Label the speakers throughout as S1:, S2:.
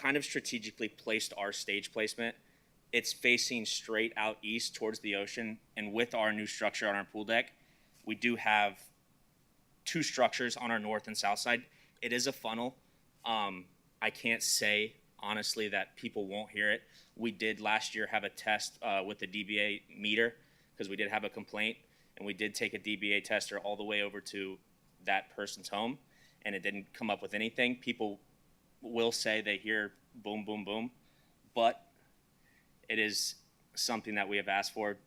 S1: kind of strategically placed our stage placement. It's facing straight out east towards the ocean, and with our new structure on our pool deck, we do have two structures on our north and south side. It is a funnel. Um, I can't say honestly that people won't hear it. We did last year have a test uh, with the DBA meter because we did have a complaint, and we did take a DBA tester all the way over to that person's home, and it didn't come up with anything. People will say they hear boom, boom, boom, but it is something that we have asked for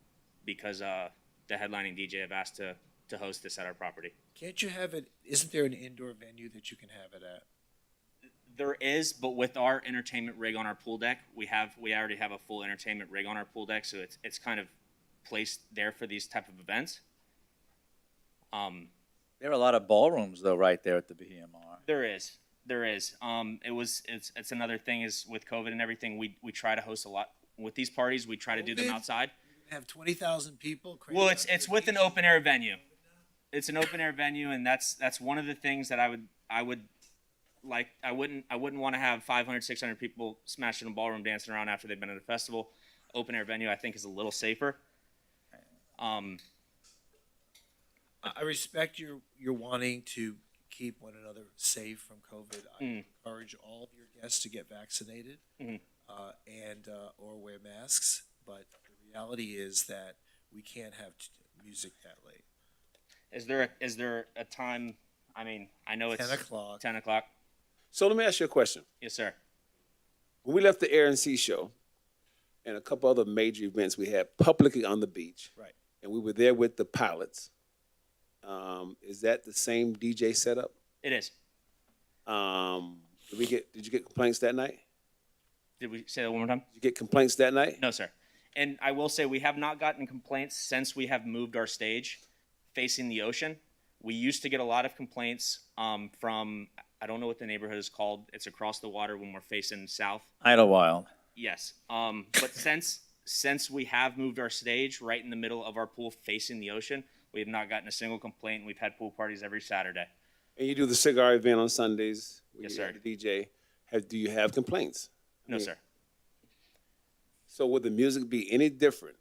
S1: because uh, the headlining DJ have asked to to host this at our property.
S2: Can't you have it? Isn't there an indoor venue that you can have it at?
S1: There is, but with our entertainment rig on our pool deck, we have we already have a full entertainment rig on our pool deck, so it's it's kind of placed there for these type of events. Um,
S3: There are a lot of ballrooms though, right there at the BMR.
S1: there is, there is. Um, it was it's it's another thing is with COVID and everything, we we try to host a lot with these parties. We try to do them
S2: COVID?
S1: outside.
S2: Have twenty thousand people. crammed
S1: Well, it's
S2: onto
S1: it's
S2: the
S1: with an
S2: beach?
S1: open air venue. It's an open air venue, and that's that's one of the things that I would I would like I wouldn't I wouldn't want to have 500 600 people smashing a ballroom dancing around after they've been at a festival. Open air venue I think is a little safer. Um,
S2: I I respect your your wanting to keep one another safe from COVID. I
S1: Mm.
S2: encourage all of your guests to get vaccinated
S1: Mm-hmm.
S2: uh, and uh, or wear masks. But the reality is that we can't have t- music that late.
S1: is there a, is there a time? I mean I know it's
S2: 10 o'clock.
S1: 10 o'clock.
S4: So let me ask you a question.
S1: Yes, sir.
S4: When we left the Air and Sea Show and a couple other major events we had publicly on the beach,
S2: Right.
S4: and we were there with the pilots, um, is that the same DJ setup?
S1: It is.
S4: Um, did we get? Did you get complaints that night?
S1: Did we say that one more time?
S4: Did you get complaints that night?
S1: No, sir. And I will say we have not gotten complaints since we have moved our stage facing the ocean. We used to get a lot of complaints um, from I don't know what the neighborhood is called. It's across the water when we're facing south.
S3: Idlewild.
S1: Yes. Um, but since since we have moved our stage right in the middle of our pool facing the ocean, we have not gotten a single complaint. We've had pool parties every Saturday.
S4: And you do the cigar event on Sundays. where
S1: Yes,
S4: you
S1: sir.
S4: have The DJ. Have, do you have complaints?
S1: No,
S4: Yeah.
S1: sir.
S4: So would the music be any different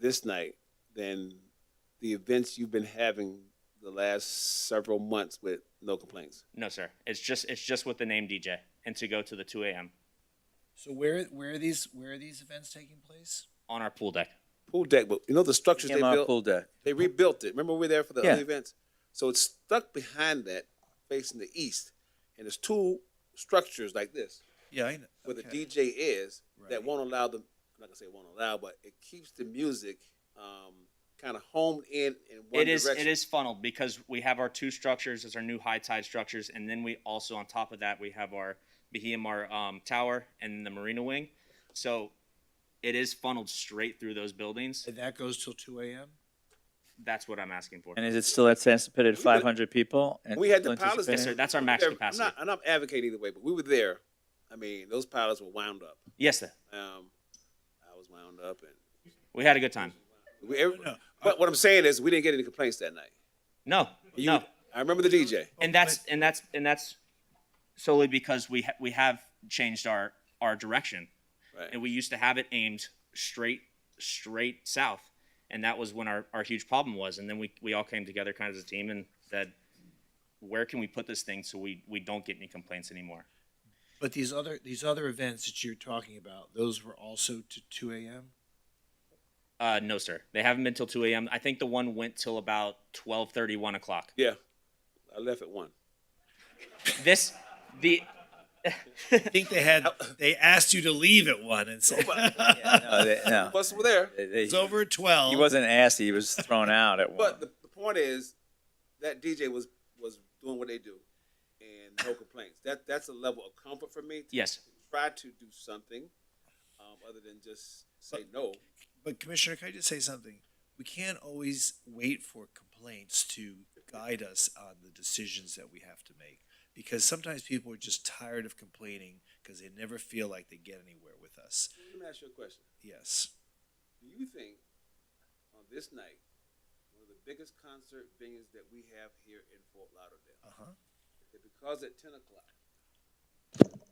S4: this night than the events you've been having the last several months with no complaints?
S1: No, sir. It's just it's just with the name DJ and to go to the 2 a.m.
S2: So where where are these where are these events taking place?
S1: on our pool deck.
S4: Pool deck, but you know the structures they
S3: BMR
S4: built.
S3: pool deck.
S4: They rebuilt it. Remember we were there for the
S3: Yeah.
S4: other events. So it's stuck behind that, facing the east, and there's two structures like this
S2: Yeah, I know.
S4: where the
S2: Okay.
S4: DJ is
S2: Right.
S4: that won't allow the. I'm not gonna say won't allow, but it keeps the music um, kind of homed in in one
S1: It is
S4: direction.
S1: it is funneled because we have our two structures as our new high tide structures, and then we also on top of that we have our Bahia um, Tower and the Marina Wing. So it is funneled straight through those buildings.
S2: And that goes till two a.m.
S1: That's what I'm asking for.
S3: And is it still at anticipated
S4: We-
S3: 500 people? And
S4: We had the
S3: still
S4: pilots there.
S1: Yes, sir.
S3: anticipated?
S1: That's our max
S4: We were-
S1: capacity.
S4: I'm not, I'm not advocating either way, but we were there. I mean, those pilots were wound up.
S1: Yes, sir.
S4: Um, I was wound up, and
S1: We had a good time.
S4: we. Every, But what I'm saying is, we didn't get any complaints that night.
S1: No,
S4: You-
S1: no,
S4: I remember the DJ.
S1: and that's and that's and that's solely because we ha- we have changed our our direction.
S4: Right.
S1: and we used to have it aimed straight straight south and that was when our, our huge problem was and then we, we all came together kind of as a team and said where can we put this thing so we, we don't get any complaints anymore
S2: But these other these other events that you're talking about, those were also to two a.m.
S1: uh, no sir they haven't been till 2 a.m i think the one went till about 12.30 1 o'clock
S4: Yeah, I left at one.
S1: this the
S5: I think they had they asked you to leave at one and said
S3: No, they- no.
S4: Plus, we're there.
S3: They- they-
S5: it's over at twelve.
S3: He wasn't asked. He was thrown out at one.
S4: But the, the point is, that DJ was was doing what they do, and no complaints. That that's a level of comfort for me. To
S1: yes
S4: Try to do something, um, other than just say no.
S5: But Commissioner, can I just say something? We can't always wait for complaints to guide us on the decisions that we have to make. Because sometimes people are just tired of complaining because they never feel like they get anywhere with us.
S4: Let me ask you a question.
S5: Yes.
S4: Do you think on this night, one of the biggest concert venues that we have here in Fort Lauderdale,
S5: Uh-huh.
S4: that because at ten o'clock,